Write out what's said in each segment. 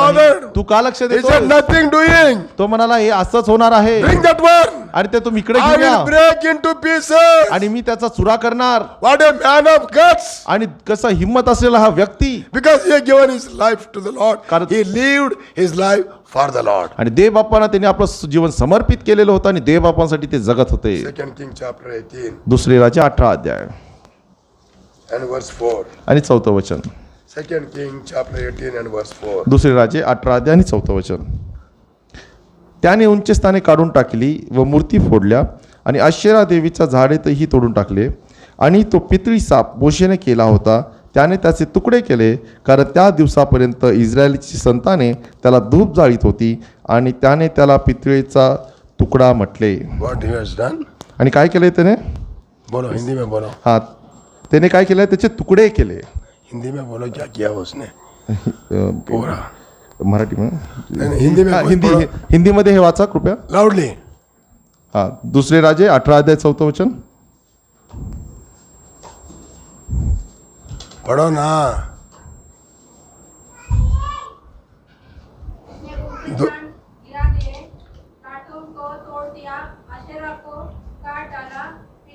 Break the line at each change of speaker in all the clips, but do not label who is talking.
Father,
तू का लक्ष
He
देतो
said, nothing doing.
तो म्हणाला हे असंच होणार आहे
Bring that one.
आणि ते तुम्ही इकडे
I
घेऊन
will
या
break into pieces.
आणि मी त्याचा चुरा करणार
What a man of guts.
आणि कसा हिंमत असलेला हा व्यक्ती
Because he had given his life to the Lord.
कारण-
He lived his life for the Lord.
आणि देवबापांना त्यांनी आपलं जीवन समर्पित केलेलं होतं आणि देवबापांसाठी ते जगत होते
Second King chapter 18
दुसरे राजा अठरा अध्याय
and verse 4.
आणि चौथं वचन
Second King chapter 18 and verse 4.
दुसरे राजे अठरा अध्याय आणि चौथं वचन त्याने उंचे स्थाने काढून टाकली व मूर्ती फोडल्या आणि अश्वेरा देवीचा झाडे तेही तोडून टाकले आणि तो पितळी साप मोशेने केला होता त्याने त्याचे तुकडे केले कारण त्या दिवसापर्यंत इस्रायलची संताने त्याला धूप जाळीत होती आणि त्याने त्याला पितळीचा तुकडा म्हटले
What he has done?
आणि काय केले त्याने
बोलो हिंदी में बोलो
हा त्याने काय केलं त्याचे तुकडे केले
हिंदी में बोलो क्या किया उसने
अं,
पूरा
मराठीमध्ये
हिंदी में
हा, हिंदी हिंदीमध्ये हे वाचा कृपया
लाउडली
हा दुसरे राजे अठरा अध्याय चौथं वचन
पढ़ो ना
उसने गिरा दिए कार्टून को तोड़ दिया अशेरा को काट डाला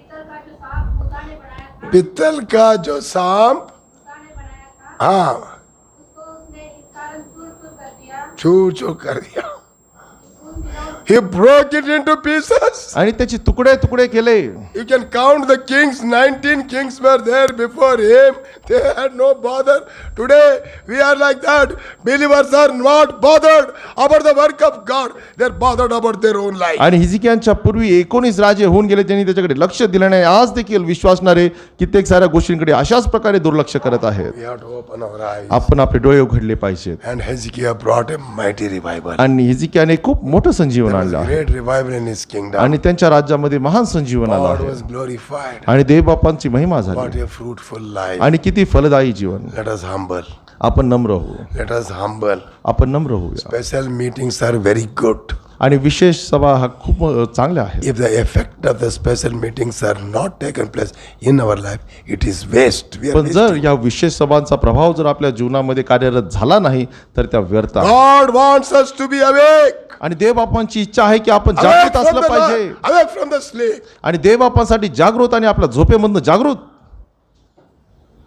पीतल का जो सांप मूसा ने बनाया था
पित्तल का जो सांप
मूसा ने बनाया था
हाँ
उसको उसने इस कारण चूर चूर कर दिया
छू छू कर दिया
उन दिनों
He broke it into pieces.
आणि त्याचे तुकडे तुकडे केले
You can count the kings. 19 kings were there before him. They had no bother. Today we are like that. Believers are not bothered about the work of God. They're bothered about their own life.
आणि हिजिकियांच्या पूर्वी एकोणीस राजे होऊन गेले ज्यांनी त्याच्याकडे लक्ष दिलं नाही आज देखील विश्वासणारे कित्येक साऱ्या गोष्टींकडे अशाच प्रकारे दुर्लक्ष करत आहेत
We have to open our eyes.
आपण आपले डोळे उघडले पाहिजेत
And Hezekiah brought a mighty revival.
आणि हिजिकियाने खूप मोठं संजीवन
There was
आणलं आहे.
great revival in his kingdom.
आणि त्यांच्या राज्यामध्ये महान संजीवन आलं
God
आहे
was glorified.
आणि देवबापांची महिमा
What
झाली
a fruitful life.
आणि किती फलदायी जीवन
Let us humble.
आपण नम्र होऊ
Let us humble.
आपण नम्र होऊया
Special meetings are very good.
आणि विशेष सभा हा खूप अ, चांगल्या आहेत
If the effect of the special meetings are not taken place in our life, it is waste. We are
पण
wasting.
जर या विशेष सभांचा प्रभाव जर आपल्या जीवनामध्ये कार्यरत झाला नाही तर त्या व्यर्थ आहेत.
God wants us to be awake.
आणि देवबापांची इच्छा आहे की आपण
Awake
जागृत
from,
असलं
the,
पाहिजे
Lord, awake from the sleep.
आणि देवबापांसाठी जागृत आणि आपल्या झोपेमधनं जागृत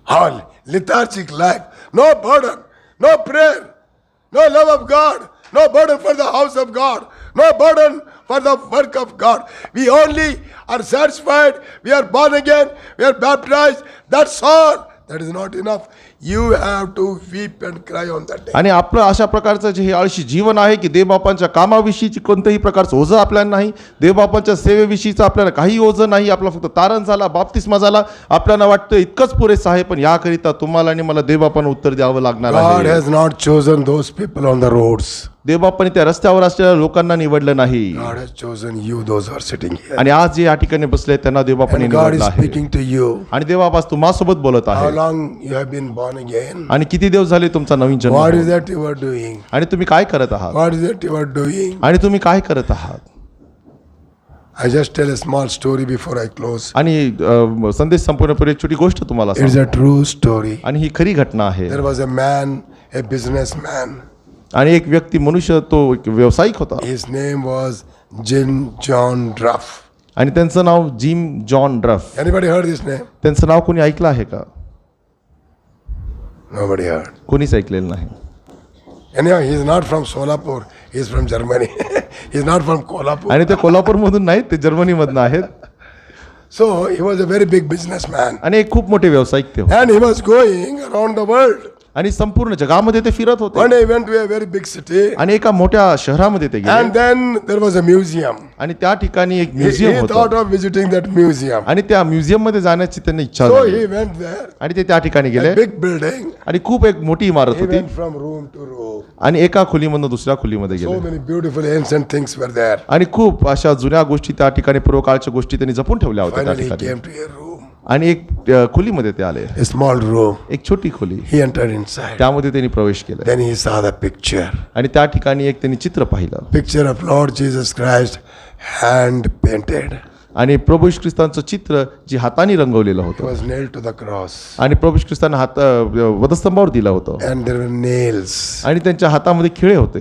All lethargic life. No burden. No prayer. No love of God. No burden for the house of God. No burden for the work of God. We only are satisfied. We are born again. We are baptized. That's all. That is not enough. You have to weep and cry on that day.
आणि आपलं अशा प्रकारचं जे हे आळशी जीवन आहे की देवबापांच्या कामाविषयीची कोणतंही प्रकारचं ओझं आपल्याला नाही देवबापांच्या सेवेविषयीचं आपल्याला काही ओझं नाही आपला फक्त तारण झाला बाप्तिस्मा झाला आपल्याला वाटतं इतकंच पुरेसं आहे पण याकरिता तुम्हाला आणि मला देवबापांना उत्तर द्यावं लागणार
God
आहे
has not chosen those people on the roads.
देवबापांनी त्या रस्त्यावर असलेल्या लोकांना निवडलं नाही
God has chosen you, those who are sitting here.
आणि आज जे या ठिकाणी बसले त्यांना देवबापाने
And God
निवडलं
is
आहे
speaking to you.
आणि देवबाप आज तुम्हासोबत बोलत
How
आहे
long you have been born again?
आणि किती दिवस झाले तुमचा नवीन जन्म
What is
होऊन?
that you are doing?
आणि तुम्ही काय करत आहात
What is that you are doing?
आणि तुम्ही काय करत आहात
I just tell a small story before I close.
आणि अ, संदेश संपवण्यापूर्वी एक छोटी गोष्ट तुम्हाला
It's
सांगतो.
a true story.
आणि ही खरी घटना आहे
There was a man, a businessman.
आणि एक व्यक्ती मनुष्य तो एक व्यावसायिक होता
His name was Jim John Ruff.
आणि त्यांचं नाव जिम जॉन ड्रफ
Anybody heard this name?
त्यांचं नाव कोणी ऐकलं आहे का
Nobody heard.
कोणीच ऐकलेलं नाही
Anyhow, he's not from Solapur. He's from Germany. he's not from Kolhapur.
आणि ते कोल्हापूरमधून नाहीत ते जर्मनीमधनं आहेत
So he was a very big businessman.
आणि एक खूप मोठे व्यावसायिक ते होते
And he was going around the world.
आणि संपूर्ण जगामध्ये ते फिरत होते
One day he went to a very big city.
आणि एका मोठ्या शहरामध्ये ते गेले
And then there was a museum.
आणि त्या ठिकाणी एक
He,
म्युझियम
he
होतं
thought of visiting that museum.
आणि त्या म्युझियम मध्ये जाण्याची त्यांना इच्छा
So
झाली
he went there.
आणि ते त्या ठिकाणी गेले
A big building.
आणि खूप एक मोठी इमारत
He
होती
went from room to room.
आणि एका खोलीमधून दुसऱ्या खोलीमध्ये
So
गेले
many beautiful ancient things were there.
आणि खूप अशा जुन्या गोष्टी त्या ठिकाणी पूर्वकाळच्या गोष्टी त्यांनी जपून ठेवल्या होत्या त्या
Finally, he
ठिकाणी
came to a room,
आणि एक अ, खोलीमध्ये ते आले
a small room.
एक छोटी खोली
He entered inside.
त्यामध्ये त्यांनी प्रवेश केला
Then he saw the picture
आणि त्या ठिकाणी एक त्यांनी चित्र पाहिलं
picture of Lord Jesus Christ hand painted
आणि प्रभू येशू ख्रिस्तांचं चित्र जे हाताने रंगवलेलं
He
होतं
was nailed to the cross.
आणि प्रभू येशू ख्रिस्तांना हात अ, वधस्तंभावर दिलं होतं
And there were nails.
आणि त्यांच्या हातामध्ये खिळे होते